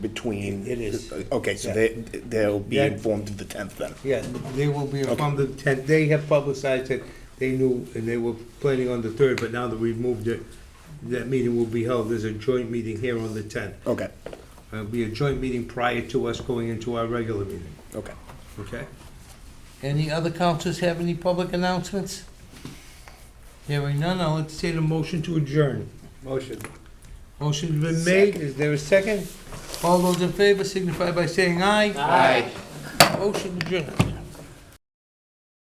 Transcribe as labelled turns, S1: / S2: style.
S1: between?
S2: It is.
S1: Okay, so
S2: Yeah.
S1: they, they'll be
S2: Yeah.
S1: informed of the tenth then?
S2: Yeah, they will be from the tenth, they have publicized it, they knew, and they were planning on the third, but now that we've moved it, that meeting will be held, there's a joint meeting here on the tenth.
S1: Okay,
S2: It'll be a joint meeting prior to us going into our regular meeting,
S1: okay.
S2: okay?
S3: Any other councils have any public announcements? Hearing none, I'll entertain a motion to adjourn.
S2: Motion.
S3: Motion's been made, is there a second? All those in favor signify by saying aye. Aye. Motion adjourned.